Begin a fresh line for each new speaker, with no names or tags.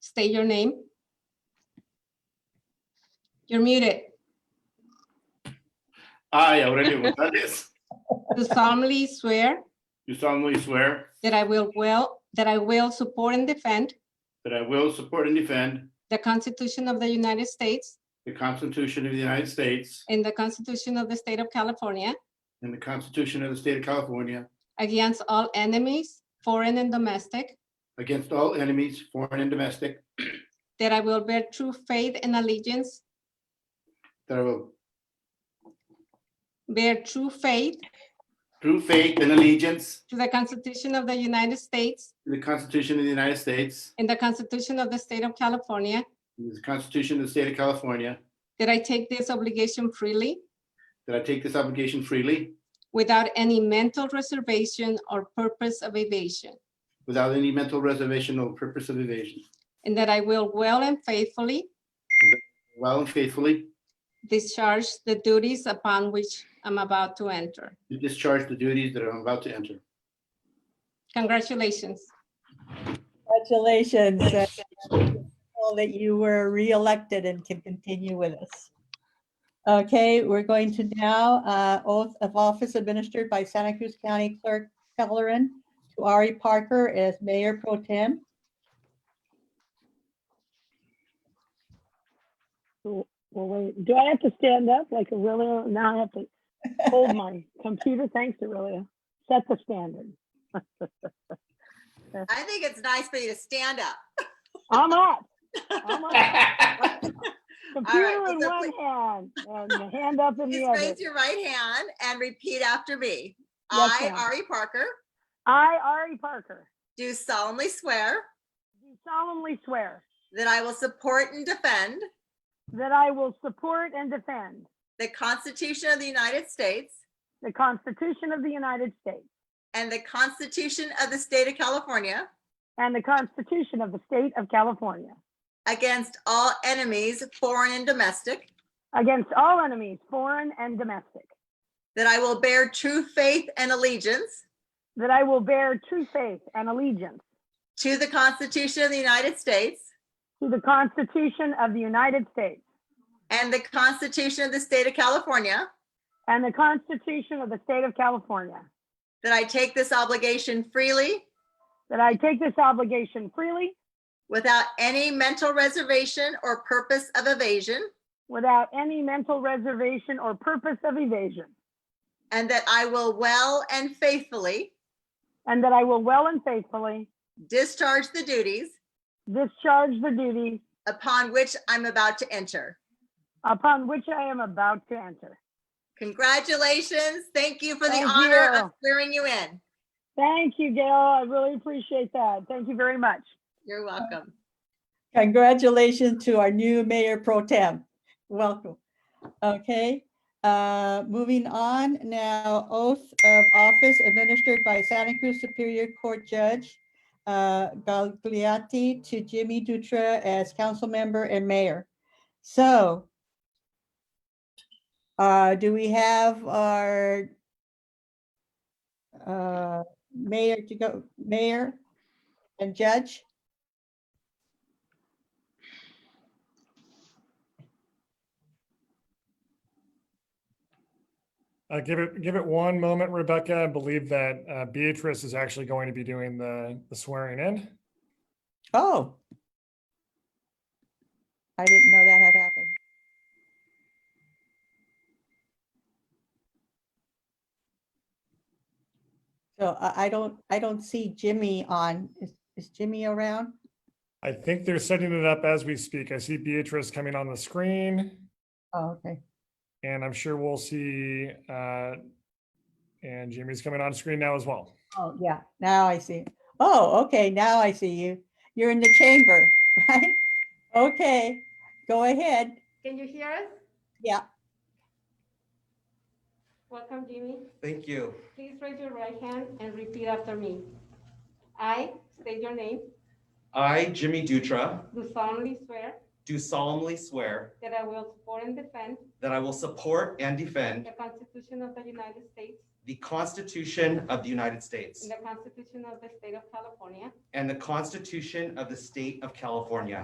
state your name. You're muted.
I, Aurelio Gonzalez,
Do solemnly swear
do solemnly swear
that I will well, that I will support and defend
that I will support and defend
the Constitution of the United States
the Constitution of the United States
and the Constitution of the State of California
and the Constitution of the State of California
against all enemies, foreign and domestic,
against all enemies, foreign and domestic,
that I will bear true faith and allegiance,
that I will
bear true faith
through faith and allegiance
to the Constitution of the United States
to the Constitution of the United States
and the Constitution of the State of California,
and the Constitution of the State of California,
that I take this obligation freely
that I take this obligation freely
without any mental reservation or purpose of evasion,
without any mental reservation or purpose of evasion,
and that I will well and faithfully
while and faithfully
discharge the duties upon which I'm about to enter.
to discharge the duties that I'm about to enter.
Congratulations.
Congratulations. uh, all That you were reelected and can continue with us. Okay, we're going to now uh, oath of office administered by Santa Cruz County Clerk Kellerin to Ari Parker as Mayor Pro Tem.
Well, wait, do I have to stand up like Aurelia? Now I have to hold my computer. Thanks, Aurelia. Set the standard.
I think it's nice for you to stand up.
I'm up. I'm up. Computer
well,
in
so
one hand and the hand up in
Please
the
raise
other.
your right hand and repeat after me.
Yes,
I,
ma'am.
Ari Parker,
I, Ari Parker,
do solemnly swear
do solemnly swear
that I will support and defend
that I will support and defend
the Constitution of the United States
the Constitution of the United States
and the Constitution of the State of California
and the Constitution of the State of California
against all enemies, foreign and domestic,
against all enemies, foreign and domestic,
that I will bear true faith and allegiance
that I will bear true faith and allegiance
to the Constitution of the United States
to the Constitution of the United States
and the Constitution of the State of California,
And the Constitution of the State of California.
that I take this obligation freely
That I take this obligation freely,
without any mental reservation or purpose of evasion,
without any mental reservation or purpose of evasion.
and that I will well and faithfully
And that I will well and faithfully
discharge the duties
discharge the duty
upon which I'm about to enter.
upon which I am about to enter.
Congratulations. Thank you for the
Thank
honor
you.
of swearing you in.
Thank you, Gail. I really appreciate that. Thank you very much.
You're welcome.
Congratulations to our new Mayor Pro Tem. Welcome. Okay, uh, moving on now, oath of office administered by Santa Cruz Superior Court Judge uh, Gagliati to Jimmy Dutra as council member and mayor. So uh, do we have our uh, mayor to go, mayor and judge?
Uh, give it, give it one moment, Rebecca. I believe that uh, Beatrice is actually going to be doing the, the swearing in.
Oh. I didn't know that had happened. So I, I don't, I don't see Jimmy on. Is, is Jimmy around?
I think they're setting it up as we speak. I see Beatrice coming on the screen
Oh, okay.
and I'm sure we'll see, uh, and Jimmy's coming on screen now as well.
Oh, yeah, now I see. Oh, okay, now I see you. You're in the chamber, right? Okay, go ahead.
Can you hear us?
Yeah.
Welcome, Jimmy.
Thank you.
Please raise your right hand and repeat after me. I state your name.
I, Jimmy Dutra,
Do solemnly swear
do solemnly swear
that I will support and defend
that I will support and defend
the Constitution of the United States
the Constitution of the United States
the Constitution of the State of California
and the Constitution of the State of California